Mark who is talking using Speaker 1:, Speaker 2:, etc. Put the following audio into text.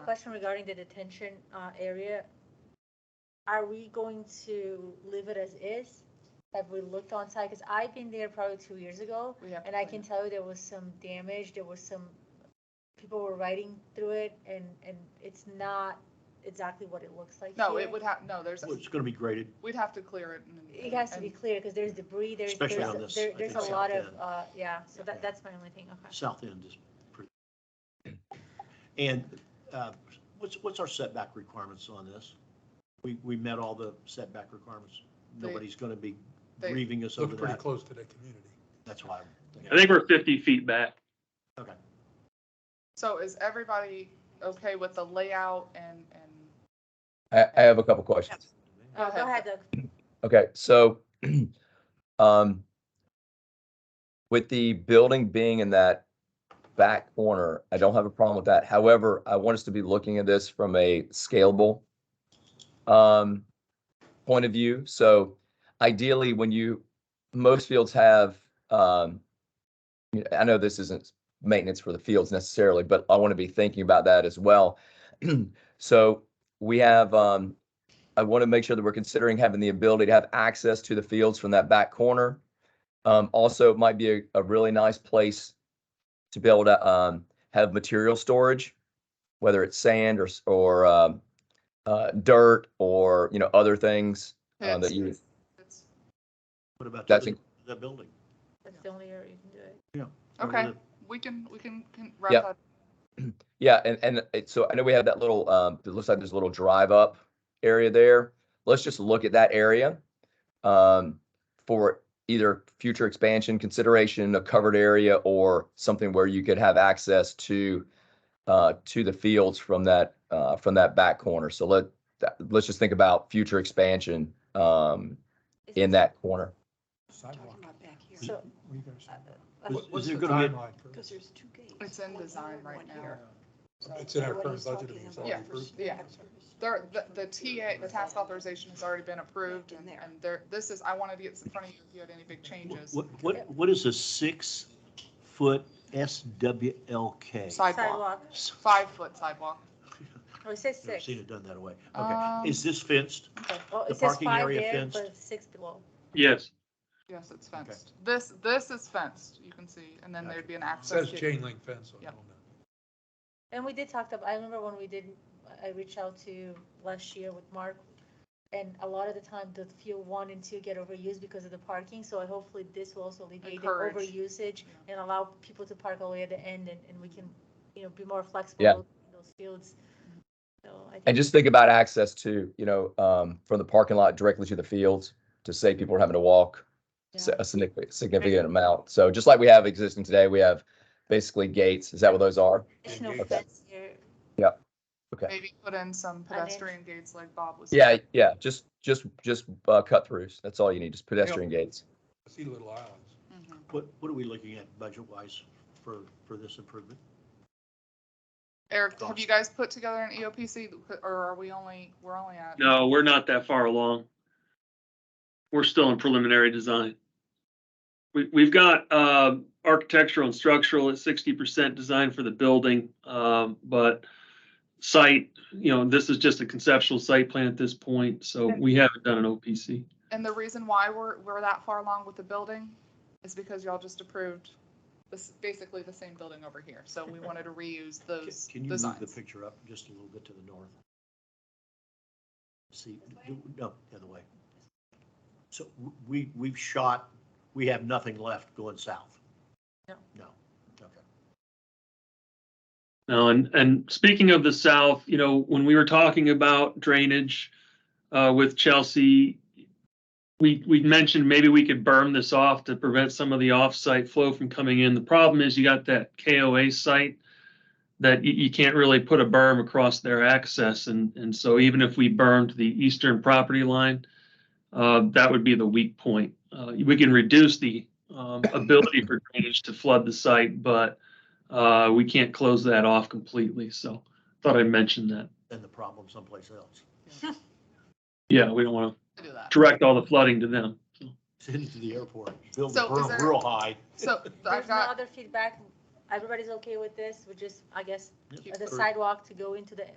Speaker 1: question regarding the detention uh, area. Are we going to leave it as is? Have we looked on site? Because I've been there probably two years ago,
Speaker 2: We have.
Speaker 1: and I can tell you there was some damage, there was some, people were riding through it, and, and it's not exactly what it looks like
Speaker 2: No,
Speaker 1: here.
Speaker 2: it would have, no, there's,
Speaker 3: Well, it's gonna be graded.
Speaker 2: we'd have to clear it. and-
Speaker 1: It has to be
Speaker 2: and-
Speaker 1: clear, because there's debris, there's,
Speaker 3: Especially
Speaker 1: there's,
Speaker 3: on this,
Speaker 1: there-
Speaker 3: I
Speaker 1: there's
Speaker 3: think
Speaker 1: a
Speaker 3: so.
Speaker 1: lot of,
Speaker 3: Yeah.
Speaker 1: uh, yeah, so that,
Speaker 3: Yeah.
Speaker 1: that's my only thing, okay.
Speaker 3: South end is pretty. And uh, what's, what's our setback requirements on this? We, we met all the setback requirements.
Speaker 2: They-
Speaker 3: Nobody's gonna be
Speaker 2: they-
Speaker 3: grieving us over
Speaker 4: Looked pretty
Speaker 3: that.
Speaker 4: close to the community.
Speaker 3: That's why. I'm
Speaker 5: I
Speaker 3: thinking-
Speaker 5: think we're fifty feet back.
Speaker 3: Okay.
Speaker 2: So is everybody okay with the layout and, and
Speaker 6: I, I have a couple questions.
Speaker 2: Go
Speaker 1: Uh, Go
Speaker 2: ahead.
Speaker 1: ahead, Doug.
Speaker 6: Okay, so um, with the building being in that back corner, I don't have a problem with that. However, I want us to be looking at this from a scalable um, point of view. So ideally, when you, most fields have, um, you know, I know this isn't maintenance for the fields necessarily, but I want to be thinking about that as well. So we have, um, I want to make sure that we're considering having the ability to have access to the fields from that back corner. Um, also, it might be a, a really nice place to be able to, um, have material storage, whether it's sand or, s- or, um, uh, dirt or, you know, other things. uh,
Speaker 2: It's-
Speaker 6: that you-
Speaker 2: it's-
Speaker 3: What about
Speaker 6: That's
Speaker 3: the,
Speaker 6: in-
Speaker 3: the building?
Speaker 1: That's the only area you can do it.
Speaker 2: Okay, we can, we can, can wrap
Speaker 6: Yep.
Speaker 2: that.
Speaker 6: Yeah, and, and it, so I know we have that little, um, it looks like there's a little drive up area there. Let's just look at that area. Um, for either future expansion consideration, a covered area or something where you could have access to. Uh, to the fields from that, uh, from that back corner. So let, that- let's just think about future expansion, um,
Speaker 1: Is
Speaker 6: in
Speaker 1: it-
Speaker 6: that corner.
Speaker 4: Sidewalk.
Speaker 1: So,
Speaker 4: What are you guys talking
Speaker 3: Was-
Speaker 4: about?
Speaker 3: was
Speaker 4: uh, What's
Speaker 3: there
Speaker 4: the
Speaker 3: gonna be-
Speaker 4: timeline for this?
Speaker 2: It's in design right now. So
Speaker 4: It's in our current budget. and it's already
Speaker 2: Yeah,
Speaker 4: approved.
Speaker 2: yeah. There, the, the TA, the task authorization has already been approved and, and there, this is, I wanted to get this in front of you if you had any big changes.
Speaker 3: What, what, what is a six-foot SWLK?
Speaker 2: Sidewalk,
Speaker 1: Sidewalk,
Speaker 2: five foot sidewalk.
Speaker 1: oh, it says
Speaker 3: Never
Speaker 1: six.
Speaker 3: seen it done that way.
Speaker 2: Um,
Speaker 3: Okay, is this fenced?
Speaker 1: Oh,
Speaker 3: the
Speaker 1: it says
Speaker 3: parking
Speaker 1: five
Speaker 3: area
Speaker 1: there,
Speaker 3: fenced?
Speaker 1: but six below.
Speaker 5: Yes.
Speaker 2: Yes, it's fenced. This, this is fenced, you can see, and then there'd be an
Speaker 4: It
Speaker 2: access.
Speaker 4: Says
Speaker 2: gate.
Speaker 4: chain link fence on it.
Speaker 2: Yep.
Speaker 1: And we did talk about, I remember when we did, I reached out to last year with Mark. And a lot of the time, the field one and two get overused because of the parking, so I hopefully this will also alleviate the
Speaker 2: Encourage.
Speaker 1: overusage and allow people to park all the way at the end and, and we can, you know, be more flexible
Speaker 6: Yeah.
Speaker 1: in those fields. So I think.
Speaker 6: And just think about access to, you know, um, from the parking lot directly to the fields to save people from having to walk s-
Speaker 2: Yeah.
Speaker 6: a significant, significant amount. So just like we have existing today, we have basically gates. Is that what those are?
Speaker 1: Additional
Speaker 4: Okay.
Speaker 1: fence here,
Speaker 6: Okay.
Speaker 2: Maybe put in some
Speaker 1: I mean-
Speaker 2: pedestrian gates like Bob was.
Speaker 6: Yeah,
Speaker 2: saying.
Speaker 6: yeah, just, just, just, uh, cut throughs. That's all you need, just pedestrian gates.
Speaker 4: I see little islands.
Speaker 2: Mhm.
Speaker 3: What, what are we looking at budget-wise for, for this improvement?
Speaker 2: Eric, have you guys put together an E EOPC or are we only, we're only at?
Speaker 5: No, we're not that far along. We're still in preliminary design. We, we've got, uh, architectural and structural at sixty percent design for the building, um, but site, you know, this is just a conceptual site plan at this point, so we haven't done an OPC.
Speaker 2: And the reason why we're, we're that far along with the building is because y'all just approved this, basically the same building over here. So we wanted to reuse
Speaker 3: Can-
Speaker 2: those
Speaker 3: Can you move the
Speaker 2: designs.
Speaker 3: picture up just a little bit to the north? See, do- no, the other way. So w- we, we've shot, we have nothing left going south.
Speaker 1: No.
Speaker 3: No, okay.
Speaker 5: No, Uh, and, and speaking of the South, you know, when we were talking about drainage uh, with Chelsea, we, we mentioned maybe we could berm this off to prevent some of the off-site flow from coming in. The problem is you got that KOA site that you, you can't really put a berm across their access. And, and so even if we bermed the eastern property line, uh, that would be the weak point. Uh, we can reduce the um, ability for drainage to flood the site, but uh, we can't close that off completely, so thought I'd mention that.
Speaker 3: Then the problem someplace else,
Speaker 5: Yeah, we don't want
Speaker 2: to do that.
Speaker 5: to direct all the flooding to them. so.
Speaker 3: send it to the airport, build the
Speaker 2: So is
Speaker 3: berm
Speaker 2: there-
Speaker 3: real high.
Speaker 2: So I've
Speaker 1: there's no
Speaker 2: got,
Speaker 1: other feedback, everybody's okay with this, we just, I guess,
Speaker 3: Yeah.
Speaker 1: the
Speaker 3: Or-
Speaker 1: sidewalk to go into the